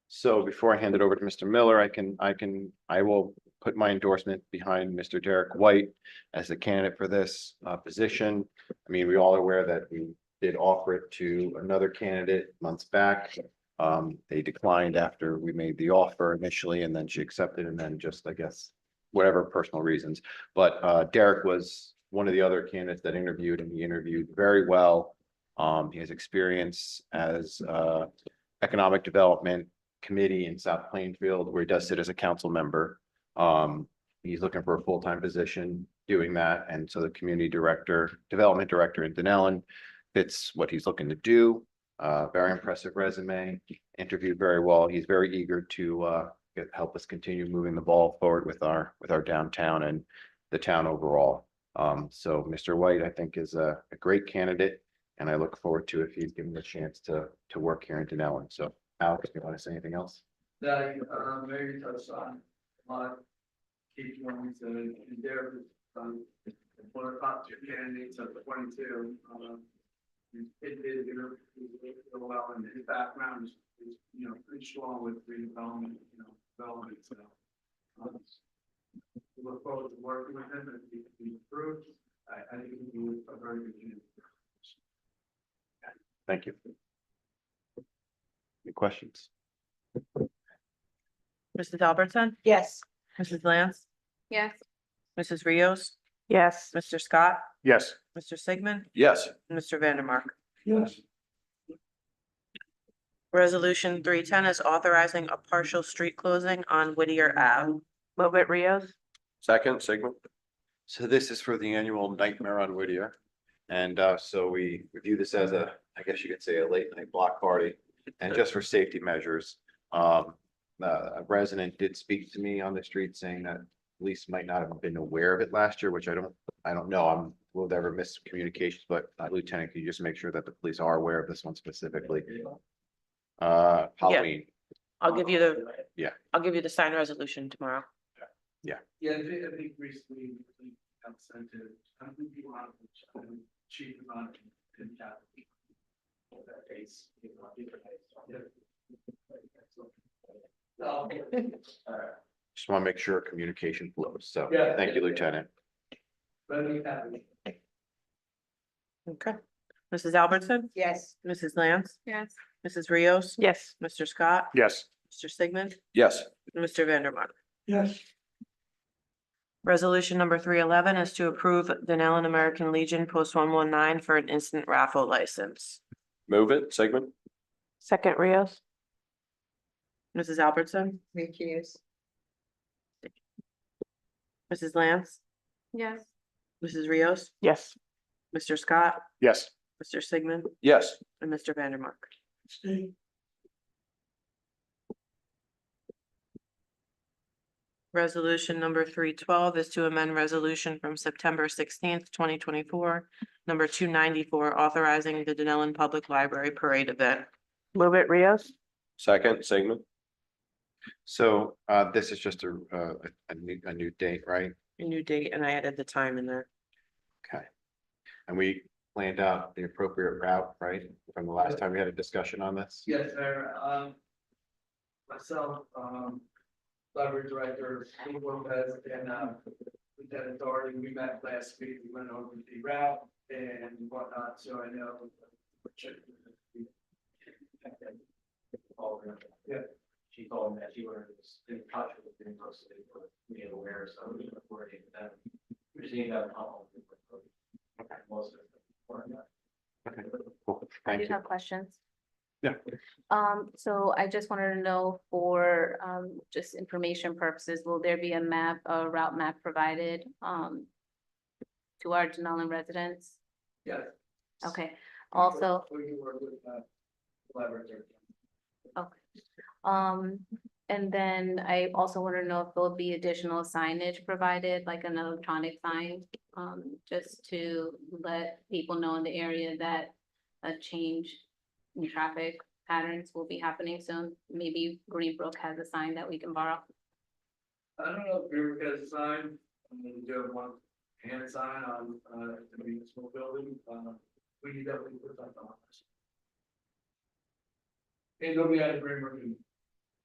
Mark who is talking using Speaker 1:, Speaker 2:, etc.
Speaker 1: So before I hand it over to Mr. Miller, I can, I can, I will put my endorsement behind Mr. Derek White as the candidate for this uh position. I mean, we all are aware that we did offer it to another candidate months back. Um, they declined after we made the offer initially and then she accepted and then just, I guess, whatever personal reasons. But uh Derek was one of the other candidates that interviewed and he interviewed very well. Um, he has experience as uh economic development committee in South Plainfield where he does sit as a council member. Um, he's looking for a full-time position doing that. And so the community director, development director in Denellen fits what he's looking to do. Uh, very impressive resume, interviewed very well. He's very eager to, uh, get- help us continue moving the ball forward with our, with our downtown and the town overall. Um, so Mr. White, I think is a, a great candidate and I look forward to if he's given the chance to, to work here in Denellen. So Alex, do you want to say anything else?
Speaker 2: that uh Mary touched on. My key points and and there um one of the top two candidates of twenty two. It did you know do well and his background is is, you know pretty strong with redevelopment, you know, development, so. um, we Look forward to working with him and if he improves, I I think he was a very good candidate.
Speaker 1: Thank you. Any questions?
Speaker 3: Mrs. Albertson,
Speaker 4: Yes.
Speaker 3: Mrs. Lance,
Speaker 5: Yes.
Speaker 3: Mrs. Rios,
Speaker 4: Yes.
Speaker 3: Mr. Scott,
Speaker 6: Yes.
Speaker 3: Mr. Sigmund,
Speaker 6: Yes.
Speaker 3: and Mr. Vandermark.
Speaker 2: Yes.
Speaker 3: Resolution three ten is authorizing a partial street closing on Whittier Ave.
Speaker 4: Move it Rios?
Speaker 6: Second, segment.
Speaker 1: So this is for the annual Nightmare on Whittier. And uh, so we review this as a, I guess you could say a late night block party and just for safety measures. Um, uh, a resident did speak to me on the street saying that police might not have been aware of it last year, which I don't, I don't know. I'm, we'll never miss communications, but uh, Lieutenant, can you just make sure that the police are aware of this one specifically? Uh, Halloween,
Speaker 3: I'll give you the,
Speaker 1: Yeah.
Speaker 3: I'll give you the signed resolution tomorrow.
Speaker 2: Yeah, I think, I think recently, I think, I've sent it, I don't think people have, um, chief on it, and that. That case, you know, different case, yeah. Um, alright,
Speaker 1: just want to make sure communication flows. So,
Speaker 2: Yeah.
Speaker 1: thank you, Lieutenant.
Speaker 2: Let me have it.
Speaker 3: Okay. Mrs. Albertson,
Speaker 4: Yes.
Speaker 3: Mrs. Lance,
Speaker 5: Yes.
Speaker 3: Mrs. Rios,
Speaker 4: Yes.
Speaker 3: Mr. Scott,
Speaker 6: Yes.
Speaker 3: Mr. Sigmund,
Speaker 6: Yes.
Speaker 3: and Mr. Vandermark.
Speaker 2: Yes.
Speaker 3: Resolution number three eleven is to approve Denellen American Legion Post one one nine for an instant raffle license.
Speaker 6: Move it, segment.
Speaker 4: Second Rios?
Speaker 3: Mrs. Albertson,
Speaker 4: Recuse.
Speaker 3: Mrs. Lance,
Speaker 5: Yes.
Speaker 3: Mrs. Rios,
Speaker 4: Yes.
Speaker 3: Mr. Scott,
Speaker 6: Yes.
Speaker 3: Mr. Sigmund,
Speaker 6: Yes.
Speaker 3: and Mr. Vandermark. Resolution number three twelve is to amend resolution from September sixteenth, twenty twenty-four, number two ninety-four, authorizing the Denellen Public Library Parade event.
Speaker 4: Move it Rios?
Speaker 6: Second, segment.
Speaker 1: So uh, this is just a, uh, a- a new, a new date, right?
Speaker 3: A new date, and I added the time in there.
Speaker 1: And we planned out the appropriate route, right? From the last time we had a discussion on this?
Speaker 2: Yes, sir, um. Myself, um, library director, Lou Lopez, and, um, Lieutenant Doherty, we met last week, we went over the route and whatnot, so I know. Yeah. She told me that she was in touch with the university, but we aware, so we were worried that. We're seeing that.
Speaker 1: Okay, cool.
Speaker 5: I do
Speaker 1: Thank you.
Speaker 5: have questions.
Speaker 1: Yeah.
Speaker 5: Um, so I just wanted to know for, um, just information purposes, will there be a map, a route map provided, um, to our Denali residents?
Speaker 2: Yes.
Speaker 5: Okay, also,
Speaker 2: We were with, uh, library director.
Speaker 5: um, and then I also wanted to know if there'll be additional signage provided, like an electronic sign, um, just to let people know in the area that a change in traffic patterns will be happening soon. Maybe Greenbrook has a sign that we can borrow.
Speaker 2: I don't know if Greenbrook has a sign, I'm gonna do a one hand sign on, uh, the municipal building, um, we definitely put that on. us. And nobody out of Greenbrook can